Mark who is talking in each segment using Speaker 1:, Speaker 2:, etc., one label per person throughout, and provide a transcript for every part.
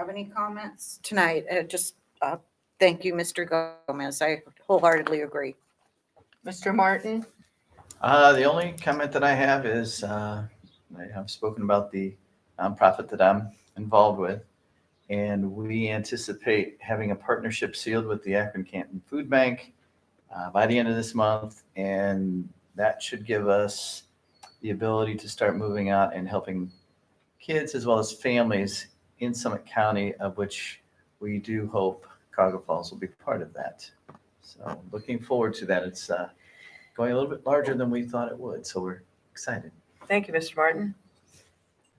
Speaker 1: have any comments tonight? Uh, Just, uh, thank you, Mr. Gomez. I wholeheartedly agree.
Speaker 2: Mr. Martin?
Speaker 3: Uh, the only comment that I have is, uh, I have spoken about the nonprofit that I'm involved with. And we anticipate having a partnership sealed with the Akron Canton Food Bank uh, by the end of this month. And that should give us the ability to start moving out and helping kids as well as families in Summit County, of which we do hope Cargo Falls will be part of that. So looking forward to that. It's, uh, going a little bit larger than we thought it would, so we're excited.
Speaker 2: Thank you, Mr. Martin.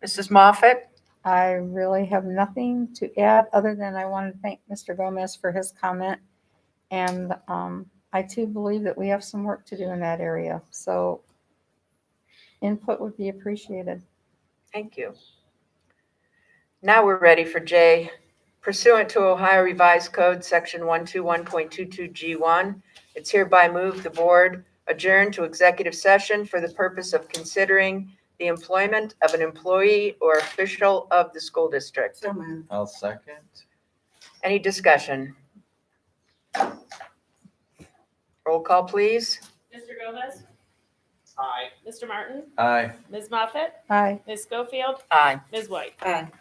Speaker 2: Mrs. Moffett?
Speaker 4: I really have nothing to add, other than I want to thank Mr. Gomez for his comment. And um, I too believe that we have some work to do in that area, so input would be appreciated.
Speaker 2: Thank you. Now we're ready for J. Pursuant to Ohio Revised Code, Section 121.22G1, it's hereby moved the board adjourn to executive session for the purpose of considering the employment of an employee or official of the school district.
Speaker 1: So moved.
Speaker 3: I'll second.
Speaker 2: Any discussion? Roll call, please.
Speaker 5: Mr. Gomez?
Speaker 6: Aye.
Speaker 5: Mr. Martin?
Speaker 3: Aye.
Speaker 5: Ms. Moffett?
Speaker 4: Aye.
Speaker 5: Ms. Schofield?
Speaker 2: Aye.
Speaker 5: Ms. White?
Speaker 1: Aye. So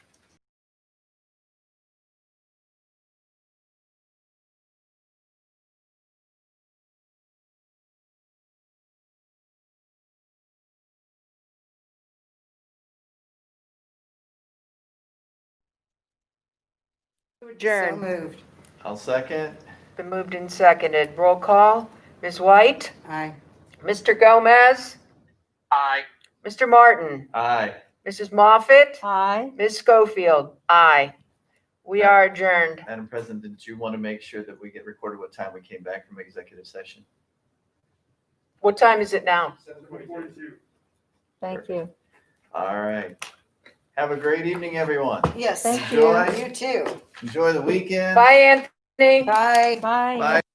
Speaker 2: Adjourn.
Speaker 1: moved.
Speaker 3: I'll second.
Speaker 2: Been moved and seconded. Roll call. Ms. White?
Speaker 1: Aye.
Speaker 2: Mr. Gomez?
Speaker 6: Aye.
Speaker 2: Mr. Martin?
Speaker 3: Aye.
Speaker 2: Mrs. Moffett?
Speaker 4: Aye.
Speaker 2: Ms. Schofield? Aye. We are adjourned.
Speaker 3: Madam President, did you want to make sure that we get recorded what time we came back from executive session?
Speaker 2: What time is it now?
Speaker 6: Seven forty-two.
Speaker 4: Thank you.
Speaker 3: All right. Have a great evening, everyone.
Speaker 1: Yes.
Speaker 4: Thank
Speaker 3: you.
Speaker 1: You too.
Speaker 3: Enjoy the weekend.
Speaker 2: Bye, Anthony.
Speaker 1: Bye.
Speaker 4: Bye.
Speaker 3: Bye.